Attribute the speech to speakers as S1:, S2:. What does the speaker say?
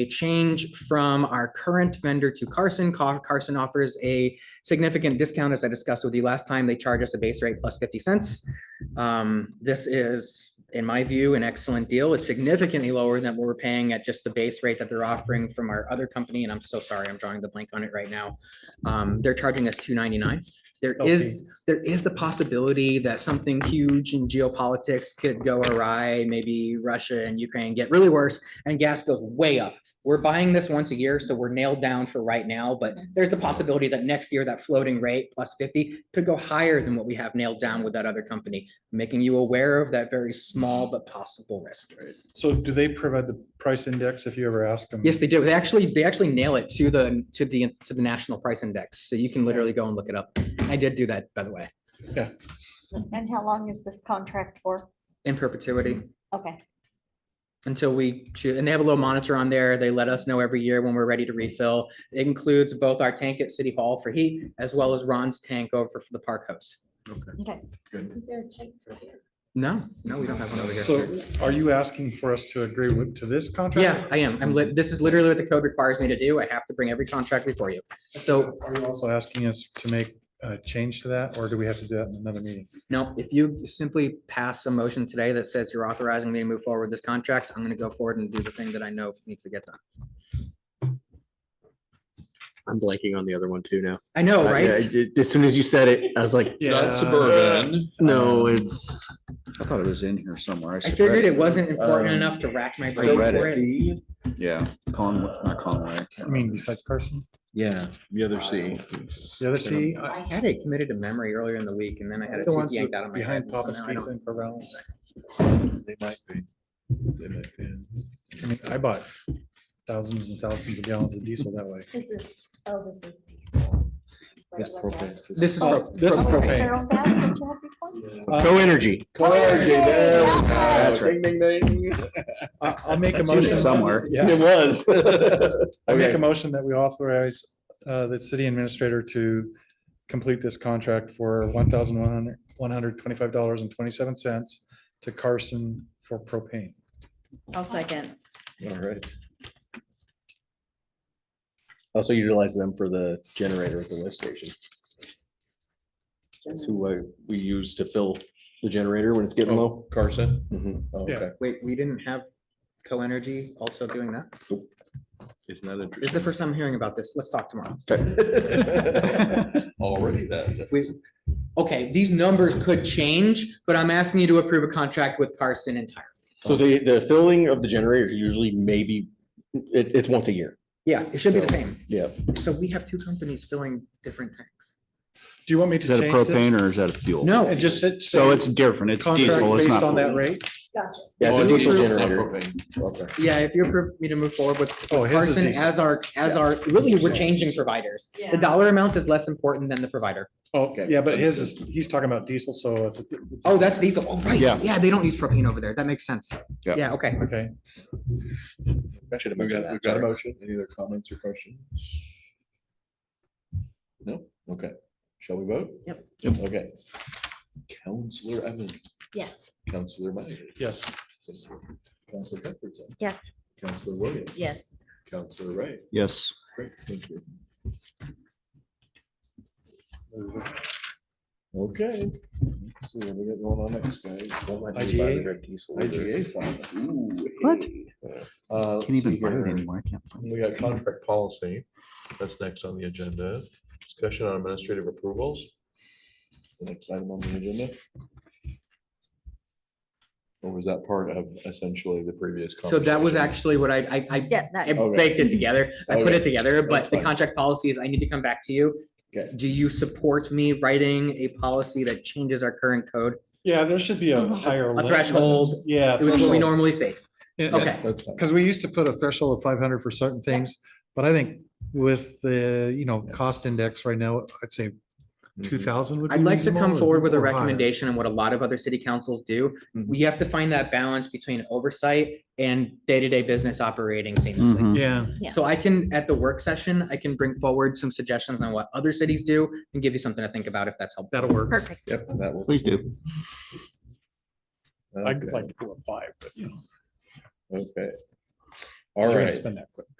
S1: a change from our current vendor to Carson. Ca- Carson offers a significant discount, as I discussed with you last time. They charge us a base rate plus fifty cents. Um, this is, in my view, an excellent deal. It's significantly lower than what we're paying at just the base rate that they're offering from our other company, and I'm so sorry, I'm drawing the blank on it right now. Um, they're charging us two ninety-nine. There is, there is the possibility that something huge in geopolitics could go awry, maybe Russia and Ukraine get really worse and gas goes way up. We're buying this once a year, so we're nailed down for right now, but there's the possibility that next year that floating rate plus fifty could go higher than what we have nailed down with that other company, making you aware of that very small but possible risk.
S2: So do they provide the price index if you ever ask them?
S1: Yes, they do. They actually, they actually nail it to the, to the, to the national price index. So you can literally go and look it up. I did do that, by the way,
S3: And how long is this contract for?
S1: in perpetuity.
S3: Okay,
S1: until we choose, and they have a little monitor on there. They let us know every year when we're ready to refill. It includes both our tank at City Hall for heat as well as Ron's tank over for the park host.
S3: okay.
S4: Is there a tank for here?
S1: No, no, we don't have one over
S2: So
S1: here.
S2: are you asking for us to agree with, to this
S1: Yeah,
S2: contract?
S1: I am. I'm lit. This is literally what the code requires me to do. I have to bring every contract before you. So
S2: Are you also asking us to make a change to that, or do we have to do that in another meeting?
S1: no, if you simply pass a motion today that says you're authorizing me to move forward with this contract, I'm gonna go forward and do the thing that I know needs to get done.
S5: I'm blanking on the other one too now.
S1: I know,
S5: Uh, yeah,
S1: right?
S5: I- As soon as you said it, I was like,
S2: Yeah.
S6: Not suburban.
S5: no, it's.
S7: I thought it was in here somewhere.
S1: I figured it wasn't important
S7: Um,
S1: enough to rack my
S7: I
S1: brain
S7: read
S1: for it.
S7: it. Yeah, Conway, not Conway. I
S2: I
S7: can't
S2: mean, besides Carson,
S6: Yeah, the other C.
S2: the other C, I-
S1: I had it committed to memory earlier in the week and then I had it
S2: the ones
S1: yanked out of my head.
S2: behind
S1: so
S2: Papa's
S1: now I don't-
S2: Pizza and Corvallis.
S6: They might be. They might be.
S2: I mean, I bought thousands and thousands of gallons of diesel that way.
S4: This is, oh, this is diesel. Regular gas.
S1: This is.
S2: Oh,
S1: pro-
S2: this is
S1: pro-
S2: propane.
S3: Feral gas that you had before?
S5: Co energy.
S4: there we go.
S7: That's right.
S2: I- I'll make a
S7: That's usually
S2: motion.
S7: somewhere.
S2: Yeah,
S5: was.
S2: I'll make a motion that we authorize uh, the city administrator to complete this contract for one thousand one hundred, one hundred twenty-five dollars and twenty-seven cents to Carson for propane.
S8: I'll second.
S5: All right. Also utilize them for the generator at the lift station. That's who I, we use to fill the generator when it's getting low.
S6: Carson?
S5: Mhm.
S6: Oh,
S2: Yeah.
S6: Okay.
S1: Wait, we didn't have Co-Energy also doing that?
S6: Isn't that
S1: This is the first time I'm hearing about this. Let's talk tomorrow.
S6: interesting? Already that.
S1: We, okay, these numbers could change, but I'm asking you to approve a contract with Carson entirely.
S5: So the, the filling of the generator is usually maybe, it, it's once a year.
S1: Yeah, it should be the same.
S5: Yeah.
S1: So we have two companies filling different tanks.
S2: Do you want me to
S7: Is that a
S2: change this?
S7: propane or is that a fuel?
S1: No.
S2: And just sit.
S7: So it's different. It's diesel. It's
S2: Based on that
S7: not.
S2: rate?
S4: Gotcha.
S5: Yeah, it's a
S6: Oh,
S5: diesel
S6: it's not
S5: generator.
S6: propane.
S5: Okay.
S1: Yeah, if you approve me to move forward with
S2: Oh, his is
S1: Carson
S2: diesel.
S1: as our, as our, really, we're changing providers. The dollar amount is less important than the provider.
S2: Oh, yeah, but his is, he's talking about diesel, so it's.
S1: Oh, that's diesel. Oh, right.
S7: Yeah.
S1: Yeah, they don't use propane over there. That makes sense.
S7: Yeah.
S1: Yeah, okay.
S2: Okay.
S5: I should have
S6: We've
S5: mentioned
S6: got,
S5: that.
S6: we've got a
S5: sorry.
S6: motion. Any other comments or questions? No? Okay. Shall we vote?
S8: Yep.
S6: Okay. Counselor Evans,
S4: Yes.
S6: Counselor Myers,
S2: Yes.
S6: Counselor Cuthbertson,
S3: Yes.
S6: Counselor Williams,
S8: Yes.
S6: Counselor Ray.
S7: Yes.
S6: Great, thank you. Okay. Let's see what we got going on next, guys. Don't let me buy the red diesel. IGA fund. Ooh,
S7: What?
S6: hey. Uh, let's
S7: Can't
S6: see
S7: even find it
S6: here.
S7: anymore. I can't find it.
S6: We got contract policy. That's next on the agenda. Discussion on administrative approvals. The Next item on the agenda. Or was that part of essentially the previous?
S1: So that was
S6: conversation?
S1: actually what I, I, I
S8: Yeah,
S1: I
S8: that,
S6: Okay.
S1: baked it together. I put it
S6: Okay.
S1: together,
S6: That's
S1: but the
S6: fine.
S1: contract policy is I need to come back to you.
S6: Okay.
S1: Do you support me writing a policy that changes our current code?
S2: Yeah, there should be a higher. limit.
S1: threshold.
S2: Yeah.
S1: It was what we
S2: threshold.
S1: normally say.
S2: Yeah,
S1: okay.
S6: That's fine.
S2: Because we used to put a threshold of five hundred for certain things, but I think with the, you know, cost index right now, I'd say two thousand would be.
S1: I'd like to come
S2: reasonable or-
S1: forward with a
S2: or higher.
S1: recommendation on what a lot of other city councils do.
S6: Mhm.
S1: We have to find that balance between oversight and day-to-day business operating seamlessly.
S6: Mm-hmm.
S7: Mhm.
S2: Yeah,
S8: Yeah.
S1: So I can, at the work session, I can bring forward some suggestions on what other cities do and give you something to think about if that's helpful.
S2: that'll work.
S8: perfect.
S6: Yep, that will.
S7: Please do.
S2: I'd like to do a five, but you know.
S6: Okay.
S5: All
S2: You're gonna
S5: right.
S2: Spend that quick.